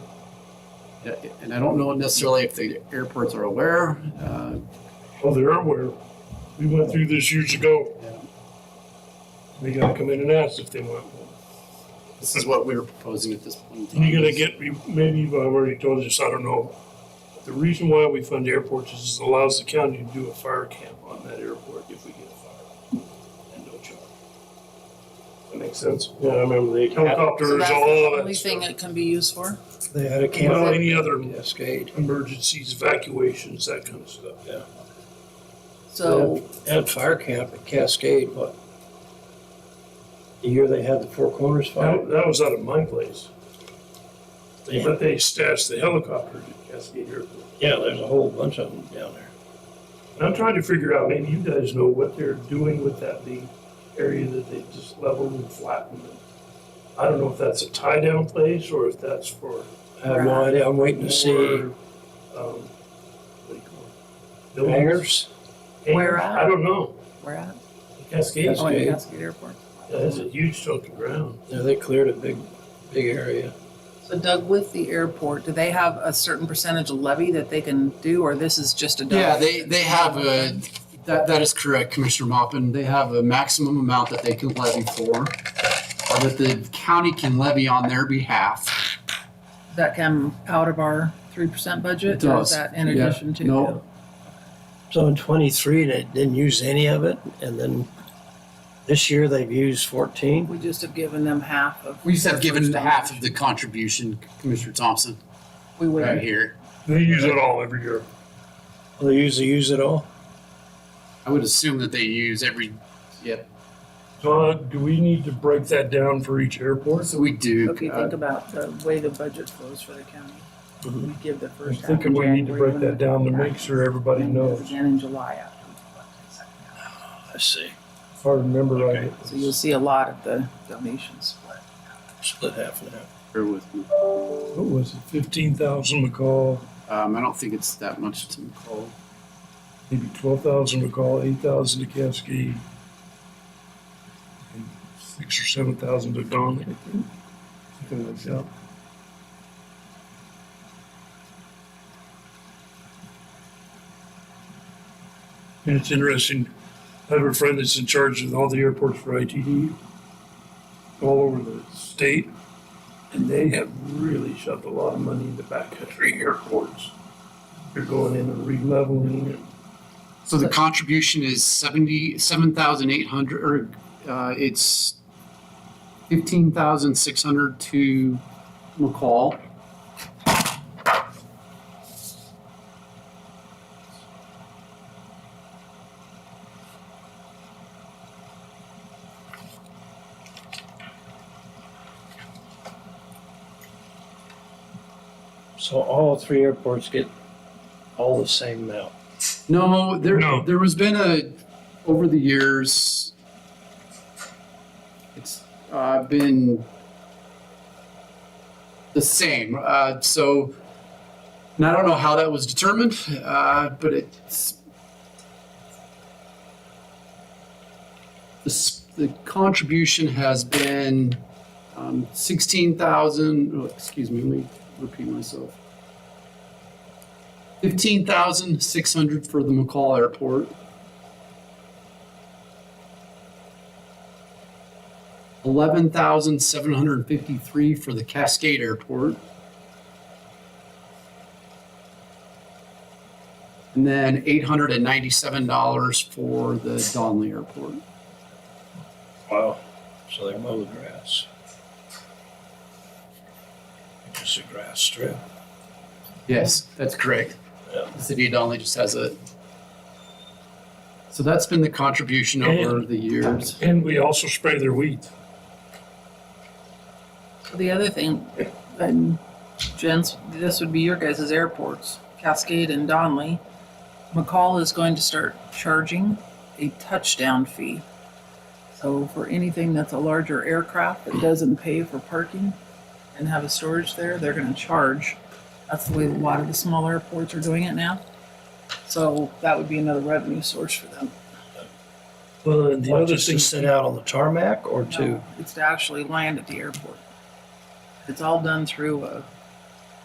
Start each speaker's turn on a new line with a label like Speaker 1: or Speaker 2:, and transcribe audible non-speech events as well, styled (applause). Speaker 1: and I don't know necessarily if the airports are aware. Uh,
Speaker 2: Oh, they're aware. We went through this years ago. They gotta come in and ask if they want one.
Speaker 1: This is what we were proposing at this point in time.
Speaker 2: And you're gonna get, maybe I've already told you this, I don't know. The reason why we fund airports is it allows the county to do a fire camp on that airport if we get a fire. And no charge. That makes sense? Yeah, I remember the
Speaker 3: So
Speaker 2: helicopters,
Speaker 3: that's
Speaker 2: all
Speaker 3: the
Speaker 2: that
Speaker 3: only thing
Speaker 2: stuff.
Speaker 3: it can be used for?
Speaker 4: They had a
Speaker 2: Well,
Speaker 4: camp.
Speaker 2: any other emergencies, evacuations, that kind of stuff, yeah.
Speaker 3: So,
Speaker 4: They had fire camp at Cascade, what? The year they had the Four Corners fire?
Speaker 2: That, that was out of my place. They- But they stashed the helicopters at Cascade Airport.
Speaker 4: Yeah, there's a whole bunch of them down there.
Speaker 2: And I'm trying to figure out, maybe you guys know what they're doing with that big area that they just leveled and flattened. I don't know if that's a tie down place or if that's for.
Speaker 4: I have no idea, I'm waiting
Speaker 2: for,
Speaker 4: to see
Speaker 2: um, What do you call it? Buildings?
Speaker 4: hangars.
Speaker 2: Hangars?
Speaker 3: Where at?
Speaker 2: I don't know.
Speaker 3: we're at,
Speaker 2: Cascade,
Speaker 3: oh, yeah,
Speaker 4: Cascade.
Speaker 3: Cascade Airport.
Speaker 2: that's a huge chunk of ground.
Speaker 4: Yeah, they cleared a big, big area.
Speaker 3: So Doug, with the airport, do they have a certain percentage of levy that they can do, or this is just a?
Speaker 1: Yeah,
Speaker 3: dollar?
Speaker 1: they, they have a, that, that is correct, Commissioner Maupin. They have a maximum amount that they can levy for, or that the county can levy on their behalf.
Speaker 3: That come out of our three percent budget,
Speaker 1: It
Speaker 3: or
Speaker 1: does,
Speaker 3: is that in
Speaker 1: yeah,
Speaker 3: addition to?
Speaker 1: no.
Speaker 4: So in twenty-three, they didn't use any of it, and then this year they've used fourteen.
Speaker 3: We just have given them half of.
Speaker 1: We just have given half of the contribution, Commissioner Thompson,
Speaker 3: We would
Speaker 1: right
Speaker 3: have
Speaker 1: here.
Speaker 2: They use it all every year.
Speaker 4: They usually use it all.
Speaker 1: I would assume that they use every, yep.
Speaker 2: Todd, do we need to break that down for each airport?
Speaker 1: So we do.
Speaker 3: Okay,
Speaker 1: uh,
Speaker 3: think about the way the budget flows for the county.
Speaker 1: Mm-hmm.
Speaker 3: We give the
Speaker 2: I'm
Speaker 3: first half.
Speaker 2: thinking
Speaker 3: in
Speaker 2: we need to
Speaker 3: January,
Speaker 2: break
Speaker 3: when
Speaker 2: that
Speaker 3: the-
Speaker 2: down to make sure everybody
Speaker 3: and then do it
Speaker 2: knows,
Speaker 3: Again in July after we collect the second half.
Speaker 4: I see.
Speaker 2: if I remember right.
Speaker 3: So you'll see a lot of the donations split.
Speaker 4: Split half and half.
Speaker 1: bear with me.
Speaker 2: What was it, fifteen thousand McCall,
Speaker 1: Um, I don't think it's that much to call.
Speaker 2: maybe twelve thousand McCall, eight thousand to Cascade? and Six or seven thousand to Don, I think. Something like that. And it's interesting, I have a friend that's in charge of all the airports for ITD, all over the state. And they have really shoved a lot of money into backcountry (laughs) airports. They're going in and re-leveling and
Speaker 1: So the contribution is seventy-seven thousand eight hundred, or, uh, it's fifteen thousand six hundred to McCall.
Speaker 4: So all three airports get all the same amount.
Speaker 1: No, there,
Speaker 2: No.
Speaker 1: there has been a, over the years, it's, uh, been the same, uh, so, and I don't know how that was determined, uh, but it's the, s- the contribution has been, um, sixteen thousand, oh, excuse me, let me repeat myself. Fifteen thousand six hundred for the McCall Airport. Eleven thousand seven hundred fifty-three for the Cascade Airport. And then eight hundred and ninety-seven dollars for the Donley Airport.
Speaker 4: Wow. So they mow the grass. Just a grass strip.
Speaker 1: Yes, that's correct.
Speaker 4: Yeah.
Speaker 1: The city of Donley just has it. So that's been the contribution over the years.
Speaker 2: And we also spray their wheat.
Speaker 3: The other thing, and gents, this would be your guys' airports, Cascade and Donley. McCall is going to start charging a touchdown fee. So for anything that's a larger aircraft that doesn't pay for parking and have a storage there, they're gonna charge. That's the way a lot of the small airports are doing it now. So that would be another revenue source for them.
Speaker 2: Well, and the
Speaker 4: What,
Speaker 2: other
Speaker 4: just
Speaker 2: thing,
Speaker 4: to sit out on the tarmac or to?
Speaker 3: No, It's to actually land at the airport. It's all done through uh, a